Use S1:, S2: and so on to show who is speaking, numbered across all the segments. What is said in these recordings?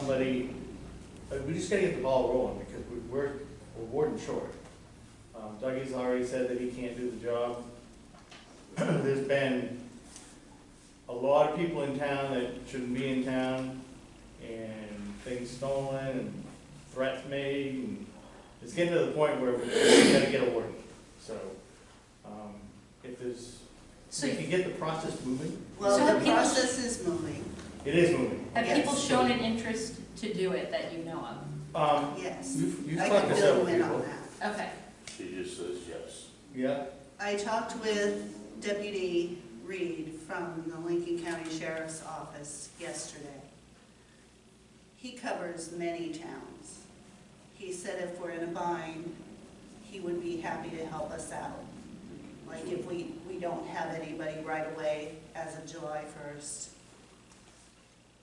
S1: somebody, uh, we just gotta get the ball rolling, because we- we're, we're warden short. Um, Dougie's already said that he can't do the job. There's been a lot of people in town that shouldn't be in town, and things stolen, and threats made, and it's getting to the point where we gotta get a warden, so, um, if there's, if
S2: So
S1: we can get the process moving,
S2: So
S3: Well,
S2: have
S3: the
S2: people-
S3: process is moving,
S1: it is moving.
S2: have people
S3: Yes.
S2: shown an interest to do it that you know
S1: Um,
S3: yes.
S1: you've, you've
S3: I
S1: talked
S3: can
S1: to
S3: fill
S1: several
S3: you in on
S1: people.
S3: that.
S2: of? Okay,
S4: She just says yes.
S1: Yeah,
S3: I talked with Deputy Reed from the Lincoln County Sheriff's Office yesterday. He covers many towns. He said if we're in a bind, he would be happy to help us out. Like if we, we don't have anybody right away as of July first,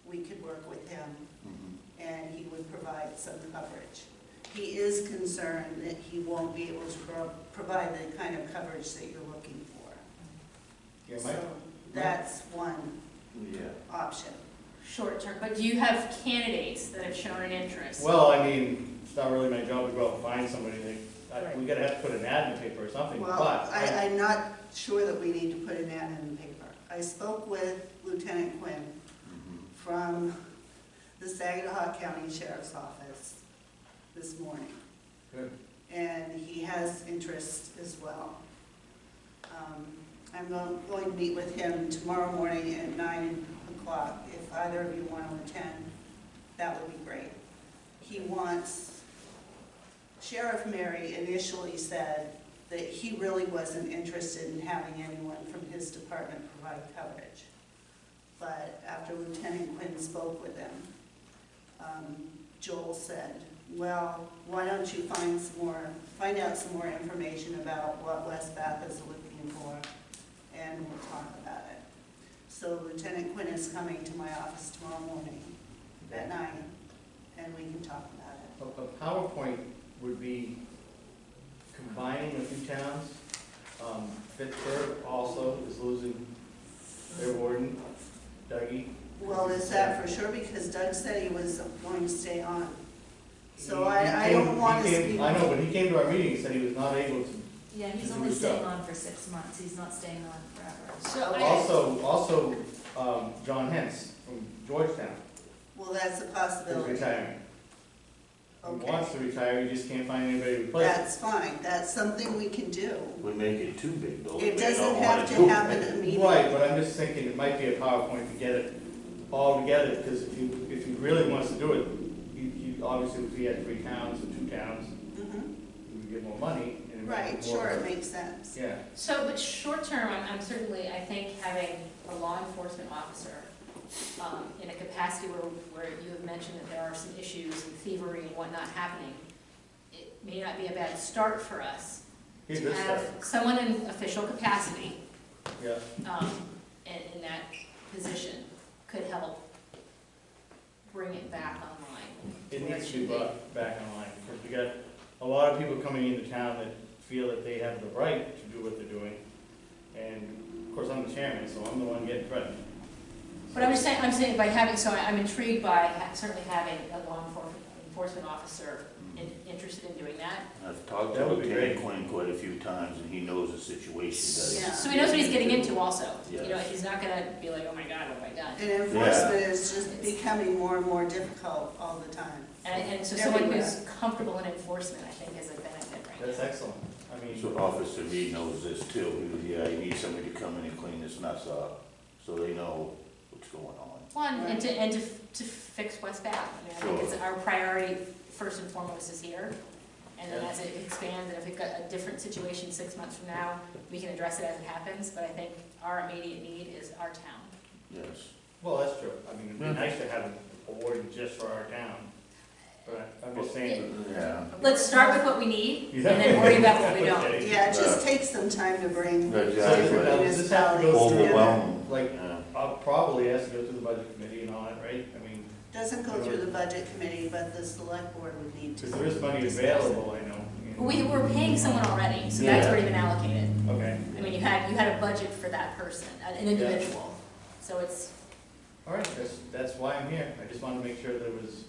S3: we could work with him
S1: Mm-hmm.
S3: and he would provide some coverage. He is concerned that he won't be able to pro- provide the kind of coverage that you're looking for.
S1: yeah, my,
S3: So that's one
S4: Yeah.
S3: option.
S2: short term, but do you have candidates that have shown an interest?
S1: Well, I mean, it's not really my job to go out and find somebody, that- I- we gotta have to put an ad in the paper or something, but.
S3: Well, I, I'm not sure that we need to put an ad in the paper. I spoke with Lieutenant Quinn
S4: Mm-hmm.
S3: from the Saginaw County Sheriff's Office this morning.
S1: Good.
S3: And he has interest as well. Um, I'm go- going to meet with him tomorrow morning at nine o'clock. If either of you want to attend, that would be great. He wants, Sheriff Mary initially said that he really wasn't interested in having anyone from his department provide coverage. But after Lieutenant Quinn spoke with him, um, Joel said, well, why don't you find some more, find out some more information about what West Bath is looking for, and we'll talk about it. So Lieutenant Quinn is coming to my office tomorrow morning at nine, and we can talk about it.
S1: A, a PowerPoint would be combining a few towns. Um, Pittsburgh also is losing their warden, Dougie.
S3: Well, is that for sure? Because Doug said he was going to stay on. So I, I
S1: He came-
S3: don't want to
S1: he came-
S3: speak.
S1: I know, but he came to our meeting, and said he was not able to.
S5: Yeah,
S1: Is
S5: he's
S1: it
S5: only
S1: with
S5: staying
S1: Doug?
S5: on for six months, he's not staying on forever.
S2: So I,
S1: Also, also, um, John Hens from Georgetown
S3: Well, that's a
S1: is
S3: possibility.
S1: retiring. He
S3: Okay,
S1: wants to retire, he just can't find anybody to replace him.
S3: that's fine. That's something we can do.
S4: We make it too big, though.
S3: It doesn't have to happen
S1: Right,
S3: immediately.
S1: but I'm just thinking it might be a PowerPoint to get it all together, because if you, if you really wants to do it, you, you, obviously, if you had three towns or two towns,
S3: Mhm.
S1: you would get more money. and it might be
S3: Right,
S1: more-
S3: sure, it makes sense.
S1: Yeah,
S2: so, but short term, I'm, I'm certainly, I think having a law enforcement officer um, in a capacity where, where you have mentioned that there are some issues and thievery and whatnot happening, it may not be a bad start for us
S1: he's
S2: to
S1: good
S2: have
S1: stuff,
S2: someone in official capacity
S1: yeah.
S2: um, in, in that position could help bring it back online.
S1: It
S2: where
S1: needs to be
S2: should be.
S1: brought back online, because we got a lot of people coming into town that feel that they have the right to do what they're doing. And, of course, I'm the chairman, so I'm the one getting threatened.
S2: But I'm just saying, I'm saying by having, so I'm intrigued by ha- certainly having a law enfor- enforcement officer in- interested in doing that.
S4: Mm-hmm. I've talked
S1: That
S4: to
S1: would be
S4: Lieutenant
S1: great.
S4: Quinn quite a few times, and he knows the situation, does
S3: Yeah.
S2: So he knows what he's getting into also, you know,
S4: Yes.
S2: he's not gonna be like, oh my God, what have I done?
S3: And enforcement is just becoming more and more difficult all the time.
S2: And, and so someone who's
S3: Everywhere.
S2: comfortable in enforcement, I think, is a benefit right
S1: That's
S2: now.
S1: excellent, I mean.
S4: So Officer Reed knows this too, He goes, yeah, you need somebody to come in and clean this mess up, so they know what's going on.
S2: One, and to, and to, f- to fix West Bath, I mean, I think it's our priority first and foremost is here. And then
S1: Yeah.
S2: as it expands, and if we've got a different situation six months from now, we can address it as it happens, but I think our immediate need is our town.
S4: Yes.
S1: Well, that's true. I mean, it'd be
S4: Yeah.
S1: nice to have a warden just for our town, but I'm just saying.
S4: Yeah.
S2: Let's start with what we need, and then worry about what we don't.
S1: Okay.
S3: Yeah, it just takes some time to bring
S4: Exactly.
S3: different
S1: Does this have to go
S3: municipalities
S1: through-
S3: together.
S4: Overwhelming.
S1: Like,
S4: Yeah.
S1: I'll probably has to go through the budget committee and all that, right? I mean,
S3: Doesn't go through the budget committee, but the select board would need to.
S1: because there is money available, I know. you know.
S2: We, we're paying someone already, so that's already been allocated.
S1: Okay,
S2: I mean, you had, you had a budget for that person, an individual. So it's,
S1: All right, that's, that's why I'm here. I just wanted to make sure there was